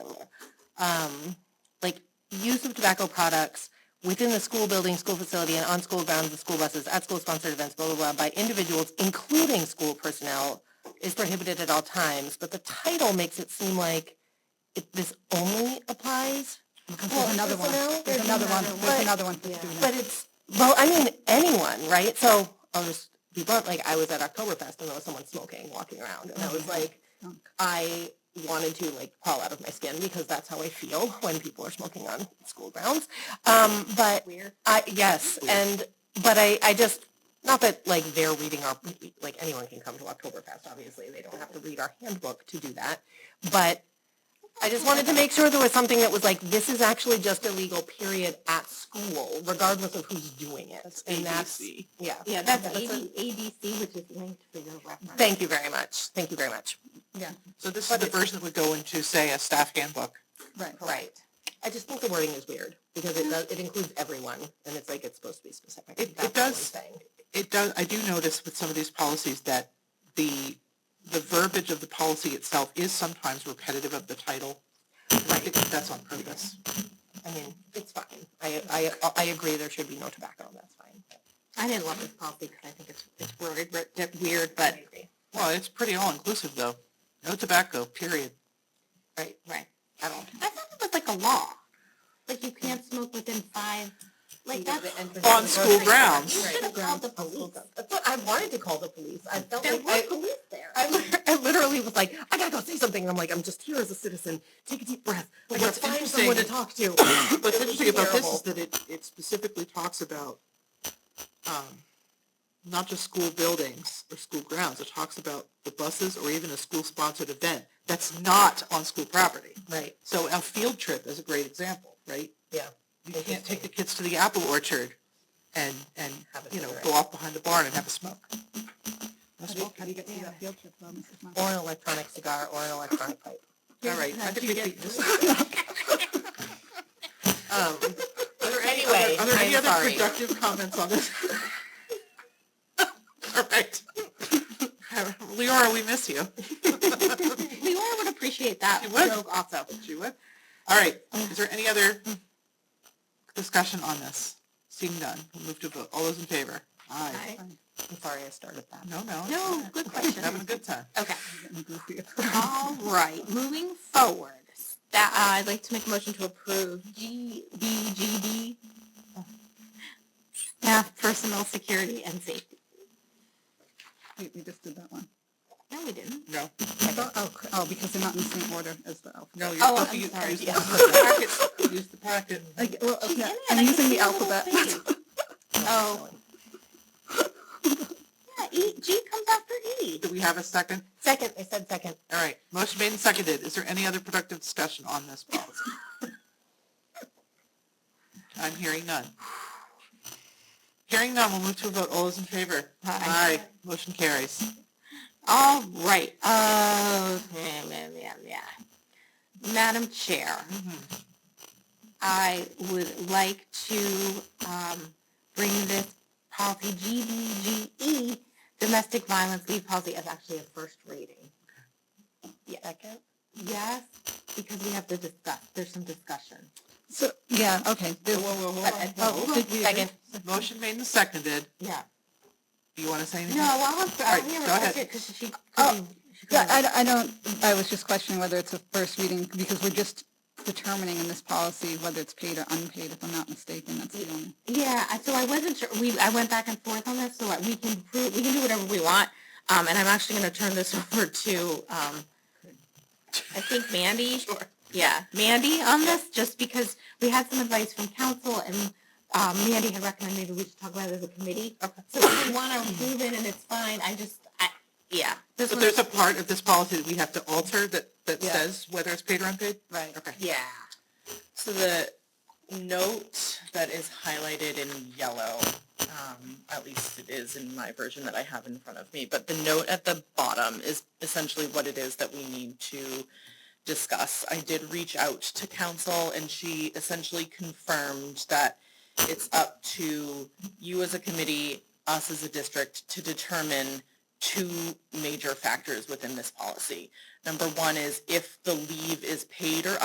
um, like use of tobacco products within the school building, school facility, and on school grounds, the school buses, at school sponsored events, blah, blah, blah, by individuals, including school personnel, is prohibited at all times. But the title makes it seem like it, this only applies. There's another one, personnel? there's another one, there's But- another one that's doing that. But it's, well, I mean, anyone, right? So I'll just be blunt, like I was at Oktoberfest and there was someone smoking, walking around. And I was like, I wanted to like crawl out of my skin because that's how I feel when people are smoking on school grounds. Um, but I, yes, and, but I, I just, not that like they're reading our, like anyone can come to Oktoberfest, obviously. They don't have to read our handbook to do that. But I just wanted to make sure there was something that was like, this is actually just illegal, period, at school, regardless of who's doing it. And that's, yeah. Yeah, that's That's a- ABC, which is linked for your reference. Thank you very much. Thank you very much. So this is the version that would go into, say, a staff handbook. Right. Right. I just think the wording is weird because it does, it includes everyone and it's like it's supposed to be specific. It- it That's all I'm does. saying. It does, I do notice with some of these policies that the, the verbiage of the policy itself is sometimes repetitive of the title. I think that's on purpose. I mean, it's fine. I, I, I agree there should be no tobacco. That's fine. I didn't love this policy because I think it's, it's worded re- weird, but, Well, it's pretty all-inclusive, though. No tobacco, period. right, right, I don't, I thought it was like a law. Like you can't smoke within five, like that's. On school grounds. Should have called the police. That's what I wanted to call the police. I felt There like were I, police there. I, lit- I literally was like, I gotta go say something. And I'm like, I'm just here as a citizen. Take a deep breath. I gotta What's find someone to interesting- talk to. What's It was interesting about this terrible. is that it, it specifically talks about, um, not just school buildings or school grounds, it talks about the buses or even a school-sponsored event that's not on school property. Right. So a field trip is a great example, right? Yeah. You can't take the kids to the apple orchard and, and, Have a you know, cigarette. go off behind the barn and have a smoke. No How do you- smoking. how do you get through that field trip though, Mrs. Moss? Or an electronic cigar or an electronic pipe. All right, I think we Yeah. can just. Um, Are anyway, there- Are there any I'm other sorry. productive comments on this? All right. Leora, we miss you. Leora would appreciate that She would. joke also. She would. All right, is there any other discussion on this? Seeing none, we'll move to vote. All those in favor? Aye. Right. I'm sorry I started that. No, no. it's No, all right. good question. Having a good time. Okay, Getting goofy. all right, moving forward, that, uh, I'd like to make a motion to approve G, B, G, D. Staff personal security and safety. Wait, we just did that one. No, we didn't. No, I thought- Oh, cr- oh, because they're not in the same order as the alphabet. no, you're Oh, supposed to I'm use sorry. use the Yeah. packet. Use the packet. I- well, She's yeah, in it, I I'm can using see the her little alphabet. thingy. Oh. Yeah, E, G comes after E. Do we have a second? Second, I said second. All right, motion made and seconded. Is there any other productive discussion on this policy? I'm hearing none. Hearing none, we'll move to a vote. All those in favor? Aye. Motion carries. All right, uh, yeah, yeah, yeah, yeah. Madam Chair, I would like to, um, bring this policy GBGE, E, domestic violence leave policy as actually a first reading. Second. Yes, because we have to discuss, there's some discussion. So, yeah, okay. Whoa, there- whoa, whoa, Uh, whoa, oh, whoa. did we- Second. Motion made and seconded. Yeah. Do you want to say anything? No, I'll, have to- I'll Alright, hear go ahead. her because she, she Oh, couldn't- she Yeah, couldn't- I, I don't, I was just questioning whether it's a first reading, because we're just determining in this policy whether it's paid or unpaid, if I'm not mistaken, that's the only. Yeah, I- so I wasn't sure, we, I went back and forth on this, so I- we can prove, we can do whatever we want. Um, and I'm actually gonna turn this over to, um, I think Mandy. Sure. Yeah, Mandy on this, just because we had some advice from council and, um, Mandy had recommended we should talk about it as a committee. Okay. So if you wanna approve it and it's fine, I just, I, yeah. this So one- there's a part of this policy that we have to alter that, that Yeah. says whether it's paid or unpaid? Right. Okay. Yeah, So the note that is highlighted in yellow, um, at least it is in my version that I have in front of me, but the note at the bottom is essentially what it is that we need to discuss. I did reach out to council and she essentially confirmed that it's up to you as a committee, us as a district, to determine two major factors within this policy. Number one is if the leave is paid or